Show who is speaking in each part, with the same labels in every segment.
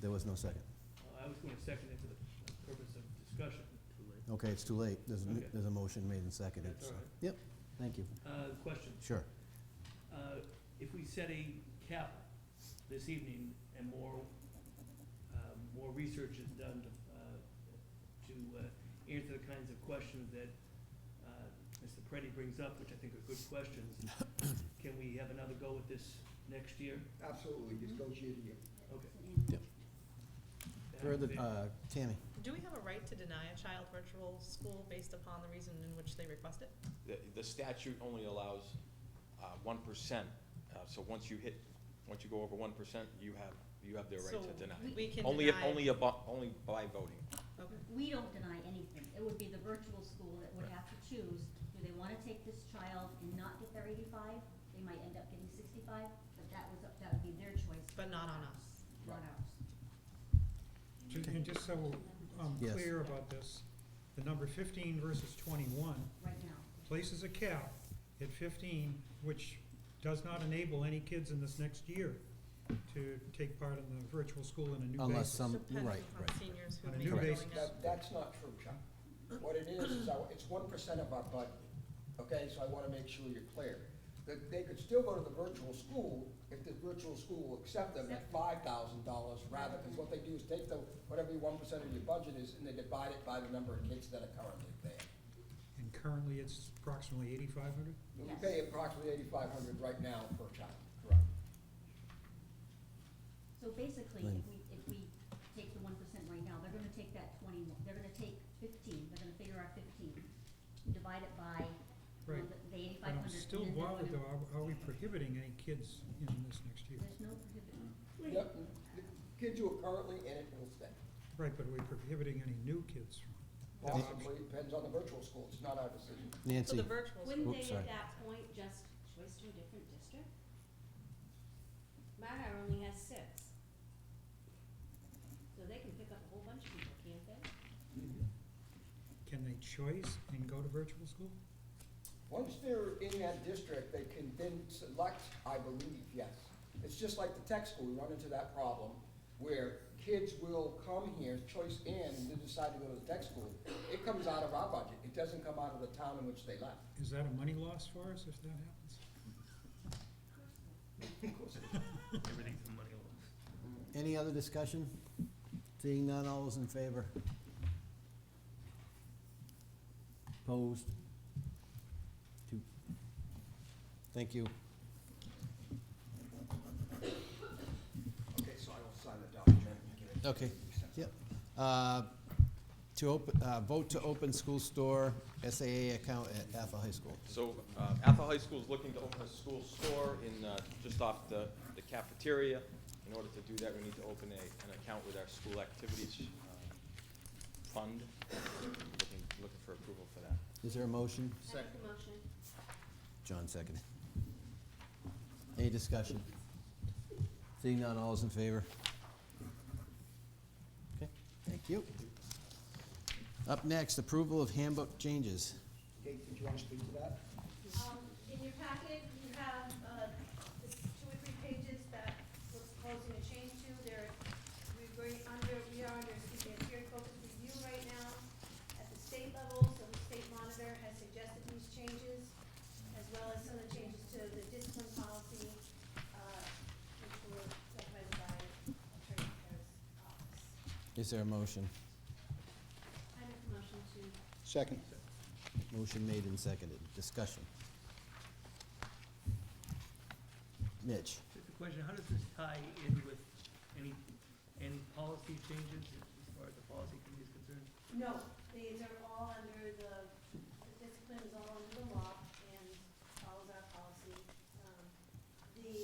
Speaker 1: There was no second.
Speaker 2: Uh, I was going to second it for the purpose of discussion.
Speaker 1: Okay, it's too late. There's, a-
Speaker 2: Okay.
Speaker 1: there's a motion made and seconded.
Speaker 2: That's all
Speaker 1: so-
Speaker 2: right.
Speaker 1: Yep, thank you.
Speaker 2: Uh, Question,
Speaker 1: Sure.
Speaker 2: uh, if we set a cap this evening and more, uh, more research is done to, uh, to uh, answer the kinds of questions that uh, Mr. Preddy brings up, which I think are good questions, can we have another go at this next year?
Speaker 3: Absolutely, just go year to year.
Speaker 2: Okay.
Speaker 1: Yep. Further, uh, Tammy?
Speaker 4: Do we have a right to deny a child virtual school based upon the reason in which they request it?
Speaker 5: The, the statute only allows uh, one percent, Uh, so once you hit, once you go over one percent, you have, you have the
Speaker 4: So
Speaker 5: right to deny.
Speaker 4: We can
Speaker 5: Only, if-
Speaker 4: deny.
Speaker 5: only abo only by voting.
Speaker 4: Okay.
Speaker 6: We don't deny anything. It would be the virtual school that would have to choose, do they wanna take this child and not get their eighty-five? They might end up getting sixty-five, but that was, that would be their choice,
Speaker 4: But not on us.
Speaker 6: not ours.
Speaker 7: Ju- And just so I'm
Speaker 1: Yes.
Speaker 7: clear about this, the number fifteen versus twenty-one
Speaker 6: Right now,
Speaker 7: places a cap at fifteen, which does not enable any kids in this next year to take part in the virtual school on a new
Speaker 1: Unless
Speaker 7: basis.
Speaker 1: some, Um, right,
Speaker 4: Depending
Speaker 1: right.
Speaker 4: upon seniors who
Speaker 7: On
Speaker 4: may
Speaker 7: a
Speaker 4: be
Speaker 7: new
Speaker 4: going
Speaker 7: basis.
Speaker 4: out.
Speaker 3: That, that's not true, Chuck. What it is, is our, it's one percent of our budget, okay, so I wanna make sure you're clear. That they could still go to the virtual school if the virtual school will accept them at five thousand dollars rather, because what they do is take the, whatever your one percent of your budget is, and they divide it by the number of kids that are currently there.
Speaker 7: And currently, it's approximately eighty-five hundred?
Speaker 3: We
Speaker 6: Yes.
Speaker 3: pay approximately eighty-five hundred right now per child. Correct.
Speaker 6: so basically,
Speaker 1: Lynn.
Speaker 6: if we, if we take the one percent right now, they're gonna take that twenty, they're gonna take fifteen, they're gonna figure out fifteen, divide it by, you know,
Speaker 7: Right.
Speaker 6: the- the
Speaker 7: But
Speaker 6: eighty-five hundred.
Speaker 7: I'm still bothered though, are- are we prohibiting any kids in this next year?
Speaker 6: There's no prohibition.
Speaker 3: Yep, the kids who are currently in it will stay.
Speaker 7: Right, but are we prohibiting any new kids from? that option?
Speaker 3: Possibly, depends on the virtual school, it's not our decision.
Speaker 4: So
Speaker 1: Nancy?
Speaker 4: the virtual
Speaker 8: Wouldn't
Speaker 4: school,
Speaker 1: Oops,
Speaker 8: they
Speaker 1: sorry.
Speaker 8: at that point just choice to a different district? Matter only has six. So they can pick up a whole bunch of people, can't they?
Speaker 7: Can they choice and go to virtual school?
Speaker 3: Once they're in that district, they can then select, I believe, yes. It's just like the tech school, we run into that problem where kids will come here, choice in, and then decide to go to the tech school. It comes out of our budget, it doesn't come out of the town in which they left.
Speaker 7: Is that a money loss for us if that happens?
Speaker 2: Everything's money
Speaker 1: Any other discussion? Seeing none, all those in favor? Opposed? Two. Thank you.
Speaker 3: Okay, so I will sign the document.
Speaker 1: Okay, yep. Uh, To open, uh, vote to open school store SAA account at Athol High School.
Speaker 5: So uh, Athol High School is looking to open a school store in, uh, just off the the cafeteria. In order to do that, we need to open a, an account with our school activities uh, fund. Looking, looking for approval for that.
Speaker 1: Is there a motion?
Speaker 8: I make the motion.
Speaker 1: John seconded. Any discussion? Seeing none, all is in favor? Okay, thank you. Up next, approval of handbook changes.
Speaker 3: Kate, did you want to speak to that?
Speaker 9: Um, in your packet, you have, uh, this two or three pages that we're proposing a change to. There, we- we're under, we are under, excuse me, a peer focused review right now at the state level, so the state monitor has suggested these changes, as well as some of the changes to the discipline policy, uh, which were recommended by Attorney Harris' office.
Speaker 1: Is there a motion?
Speaker 8: I make the motion to,
Speaker 3: Second.
Speaker 1: Motion made and seconded. Discussion. Mitch?
Speaker 2: Just a question, how does this tie in with any, any policy changes as far as the policy committee is concerned?
Speaker 9: No, these are all under the, the discipline is all under the law and follows our policy. Um, The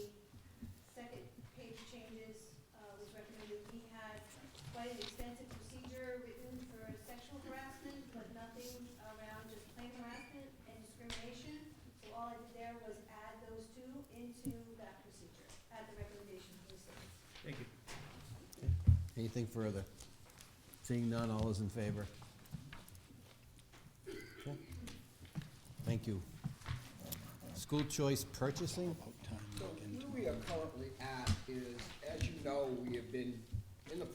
Speaker 9: second page changes uh, was recommended, we had quite an extensive procedure written for sexual harassment, but nothing around just plain harassment and discrimination. So all I did there was add those two into that procedure, at the recommendation of the state.
Speaker 2: Thank you.
Speaker 1: Anything further? Seeing none, all is in favor? Okay. Thank you. School choice purchasing?
Speaker 3: So where we are currently at is, as you know, we have been